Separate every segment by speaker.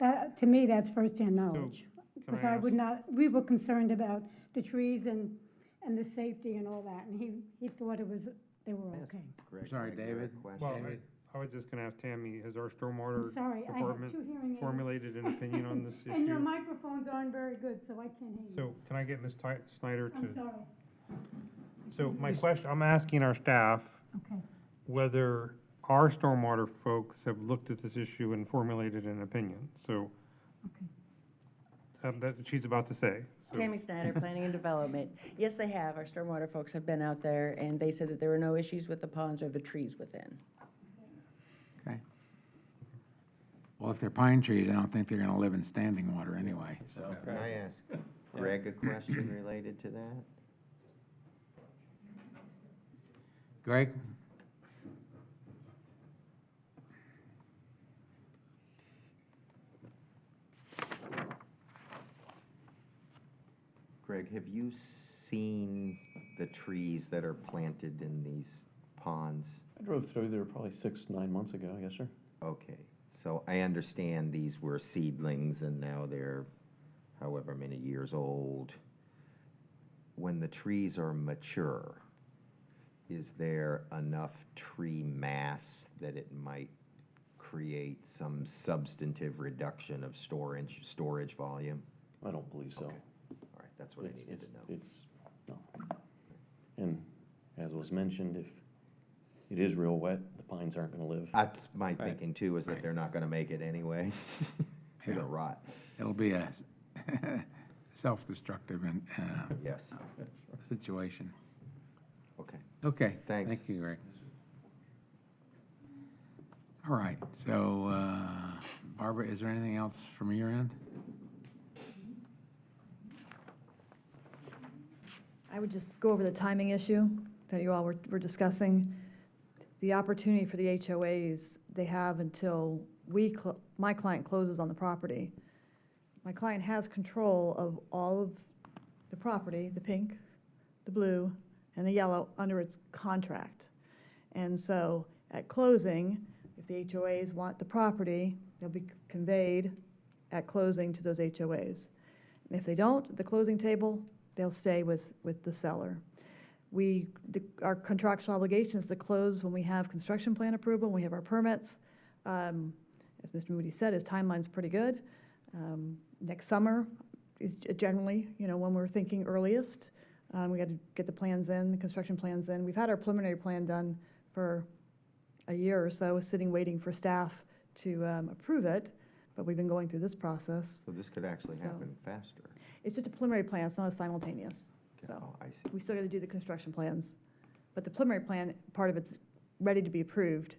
Speaker 1: to me, that's firsthand knowledge.
Speaker 2: can I
Speaker 1: Because I
Speaker 2: ask-
Speaker 1: would not, we were concerned about the trees and, and the safety and all that, and he, he thought it was, they were okay.
Speaker 3: Greg,
Speaker 4: Sorry,
Speaker 3: Greg, Greg,
Speaker 4: David.
Speaker 2: Well,
Speaker 3: question.
Speaker 2: I, I was just gonna ask Tammy, has our
Speaker 1: I'm
Speaker 2: stormwater
Speaker 1: sorry, I have
Speaker 2: department
Speaker 1: two hearing aids.
Speaker 2: formulated an opinion on this
Speaker 1: And your
Speaker 2: issue?
Speaker 1: microphones aren't very good, so I can't hear you.
Speaker 2: So can I get Ms. Ty- Snyder
Speaker 1: I'm
Speaker 2: to,
Speaker 1: sorry,
Speaker 2: so my question, I'm asking our staff
Speaker 1: okay.
Speaker 2: whether our stormwater folks have looked at this issue and formulated an opinion. So
Speaker 1: Okay.
Speaker 2: uh, that's what she's about to say. So-
Speaker 5: Tammy Snyder, Planning and Development. Yes, they have. Our stormwater folks have been out there, and they said that there were no issues with the ponds or the trees within.
Speaker 4: Okay. Well, if they're pine trees, I don't think they're gonna live in standing water anyway, so.
Speaker 3: Can I ask Greg a question related to that?
Speaker 4: Greg?
Speaker 3: Greg, have you seen the trees that are planted in these ponds?
Speaker 6: I drove through there probably six, nine months ago, yes, sir.
Speaker 3: Okay, so I understand these were seedlings and now they're however many years old. When the trees are mature, is there enough tree mass that it might create some substantive reduction of storage, storage volume?
Speaker 6: I don't believe so.
Speaker 3: Okay. All right, that's what I
Speaker 6: It's-
Speaker 3: needed to
Speaker 6: it's-
Speaker 3: know.
Speaker 6: It's, no. And as was mentioned, if it is real wet, the pines aren't gonna live.
Speaker 3: That's my thinking too, is that they're not gonna make it anyway. They're
Speaker 4: Yeah.
Speaker 3: gonna rot,
Speaker 4: It'll be a s- self-destructive and, uh,
Speaker 3: yes,
Speaker 4: situation.
Speaker 3: okay.
Speaker 4: Okay.
Speaker 3: Thanks.
Speaker 4: Thank you, Greg. All right, so, uh, Barbara, is there anything else from your end?
Speaker 7: I would just go over the timing issue that you all were were discussing. The opportunity for the HOAs, they have until we, cl- my client closes on the property. My client has control of all of the property, the pink, the blue, and the yellow, under its contract. And so at closing, if the HOAs want the property, they'll be conveyed at closing to those HOAs. And If they don't, the closing table, they'll stay with, with the seller. We, the- our contractual obligation is to close when we have construction plan approval, when we have our permits. Um, As Mr. Moody said, his timeline's pretty good. Um, Next summer is g- generally, you know, when we're thinking earliest. Um, We got to get the plans in, the construction plans in. We've had our preliminary plan done for a year or so, sitting, waiting for staff to um, approve it, but we've been going through this process.
Speaker 3: So this could actually
Speaker 7: So-
Speaker 3: happen faster.
Speaker 7: It's just a preliminary plan, it's not a simultaneous.
Speaker 3: Okay,
Speaker 7: So
Speaker 3: oh, I see.
Speaker 7: we still got to do the construction plans. But the preliminary plan, part of it's ready to be approved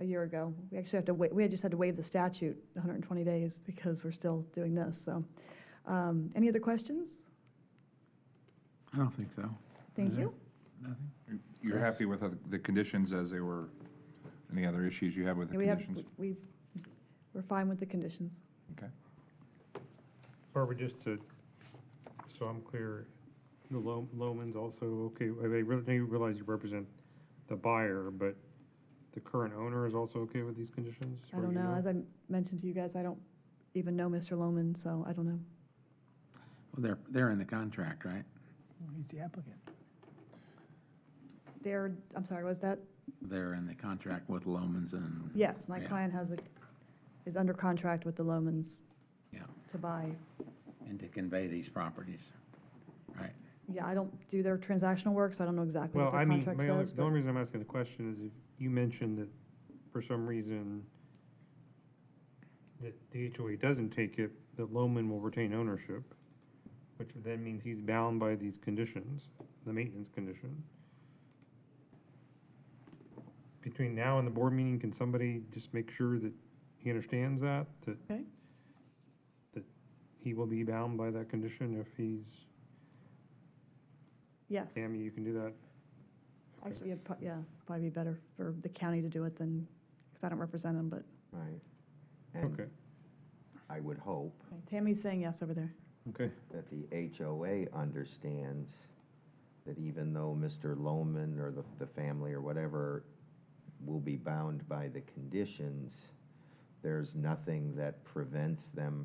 Speaker 7: a year ago. We actually have to wait, we had just had to waive the statute 120 days because we're still doing this, so. um, Any other questions?
Speaker 4: I don't think so.
Speaker 7: Thank you.
Speaker 4: Nothing?
Speaker 8: You're happy with the- the conditions as they were? Any other issues you have with the
Speaker 7: Yeah, we have-
Speaker 8: conditions?
Speaker 7: We, we're fine with the conditions.
Speaker 8: Okay.
Speaker 2: Barbara, just to, so I'm clear, the Lo- Lomans also, okay, I they re- they realize you represent the buyer, but the current owner is also okay with these conditions? as
Speaker 7: I
Speaker 2: far
Speaker 7: don't
Speaker 2: as you
Speaker 7: know, as I mentioned to you guys, I don't even know Mr. Loman, so I don't know.
Speaker 4: Well, they're, they're in the contract, right?
Speaker 7: There, I'm sorry, was that?
Speaker 4: They're in the contract with Lomans and.
Speaker 7: Yes, my
Speaker 4: Yeah.
Speaker 7: client has a, is under contract with the Lomans
Speaker 4: Yeah,
Speaker 7: to buy.
Speaker 4: and to convey these properties, right?
Speaker 7: Yeah, I don't do their transactional work, so I don't know exactly
Speaker 2: Well,
Speaker 7: what
Speaker 2: I
Speaker 7: their
Speaker 2: mean,
Speaker 7: contract
Speaker 2: my only-
Speaker 7: says.
Speaker 2: the only reason I'm asking the question is if you mentioned that for some reason that the HOA doesn't take it, that Loman will retain ownership, which then means he's bound by these conditions, the maintenance condition. Between now and the board meeting, can somebody just make sure that he understands that, that
Speaker 7: Okay.
Speaker 2: that he will be bound by that condition if he's,
Speaker 7: Yes,
Speaker 2: Tammy, you can do that?
Speaker 7: actually, it'd prob- yeah, probably be better for the county to do it than, because I don't represent them, but
Speaker 3: Right. And
Speaker 2: Okay,
Speaker 3: I would hope
Speaker 7: Tammy's saying yes over there.
Speaker 2: okay.
Speaker 3: that the HOA understands that even though Mr. Loman or the, the family or whatever will be bound by the conditions, there's nothing that prevents them